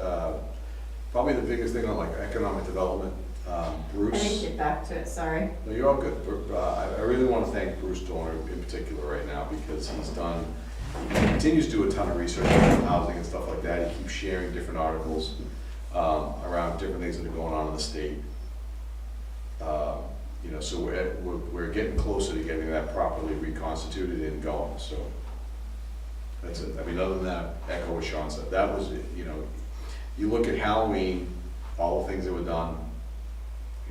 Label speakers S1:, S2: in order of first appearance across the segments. S1: Uh, probably the biggest thing on like economic development, um,
S2: I didn't
S1: Bruce,
S2: get back to it, sorry.
S1: no, you're all good. Bru- uh, I I really want to thank Bruce Dorner in particular right now because he's done, he continues to do a ton of research on housing and stuff like that. He keeps sharing different articles um, around different things that are going on in the state. Um, You know, so we're, at- we're- we're getting closer to getting that properly reconstituted and going, so. That's it. I mean, other than that, echo what Sean said. That was, you know, you look at Halloween, all the things that were done,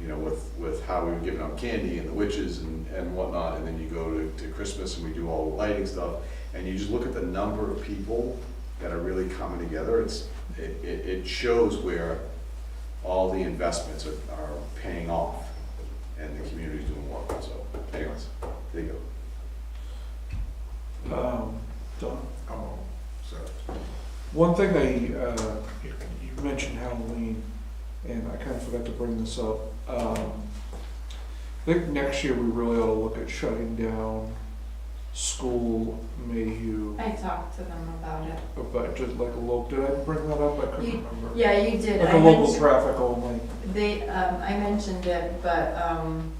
S1: you know, with, with how we were giving out candy and the witches and, and whatnot, and then you go to, to Christmas and we do all the lighting stuff, and you just look at the number of people that are really coming together, it's, it, it, it shows where all the investments are, are paying off, and the community's doing well, so anyways, there you go.
S3: Um, Don,
S4: Oh, so,
S3: one thing they, uh, you you mentioned Halloween, and I kind of forgot to bring this up. Um, I think next year we really ought to look at shutting down school Mayhew,
S2: I talked to them about it.
S3: but just like a local, did I bring that up? I couldn't remember.
S2: Yeah, you did.
S3: Like
S2: I
S3: a local
S2: mentioned-
S3: traffic only.
S2: They, um, I mentioned it, but, um,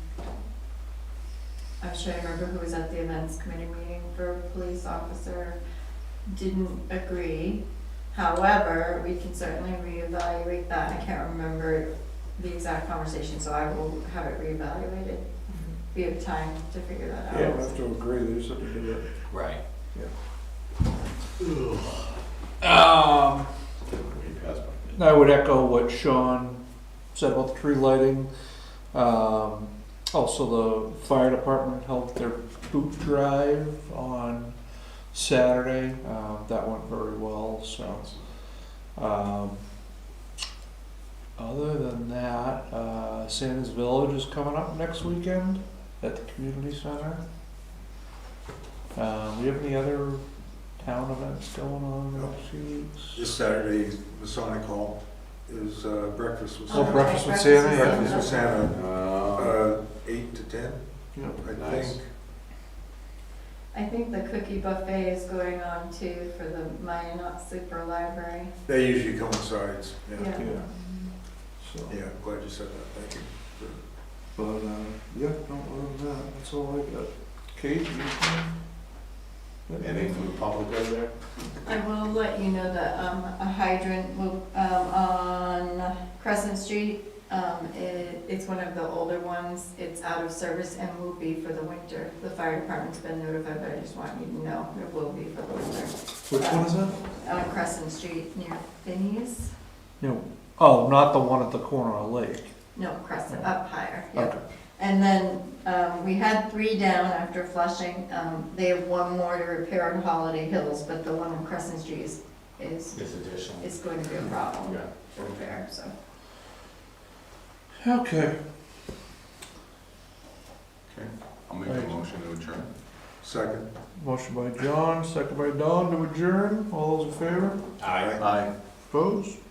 S2: I'm sure I remember who was at the events committee meeting for police officer, didn't agree. However, we can certainly reevaluate that, I can't remember the exact conversation, so I will have it reevaluated. We have time to figure that
S3: I don't
S2: out.
S3: have to agree, they just have to do it.
S5: Right. Um,
S1: We can pass by.
S3: I would echo what Sean said about the tree lighting. Um, also, the fire department held their boot drive on Saturday. Um, that went very well. So, um, other than that, uh, Santa's Village is coming up next weekend at the community center. Um, we have any other town events going on in the next few weeks?
S4: this Saturday, Masonic Hall is uh, breakfast with
S3: Oh,
S2: Okay,
S4: Santa.
S3: breakfast with Santa, yeah.
S4: Breakfast with Santa,
S1: Uh,
S4: uh, eight to ten,
S3: Yeah.
S4: I
S1: Nice.
S4: think.
S2: I think the cookie buffet is going on too for the Minot Super Library,
S4: They usually coincides, yeah.
S2: yeah.
S3: Yeah. So.
S4: Yeah, I'm glad you said that, thank you.
S3: But uh, yeah, no, other than that, that's all I got. Kate, you?
S1: anything from the public over there?
S2: I will let you know that um, a hydrant will, um, on Crescent Street, um, it, it's one of the older ones. It's out of service and will be for the winter. The fire department's been notified, but I just want you to know it will be for the winter.
S3: Which one is that?
S2: On Crescent Street near Finney's,
S3: No. Oh, not the one at the corner of the lake.
S2: no, Crescent, up higher, yeah.
S3: Okay.
S2: And then, um, we had three down after flushing. Um, they have one more to repair on Holiday Hills, but the one on Crescent Street is, is,
S5: it's additional.
S2: is going to be a problem
S1: Yeah.
S2: to repair, so.
S3: Okay.
S1: I'll make a motion to adjourn.
S4: Second.
S3: Motion by John, second by Don to adjourn. All those in favor?
S5: Aye.
S1: Aye.
S3: Opposed?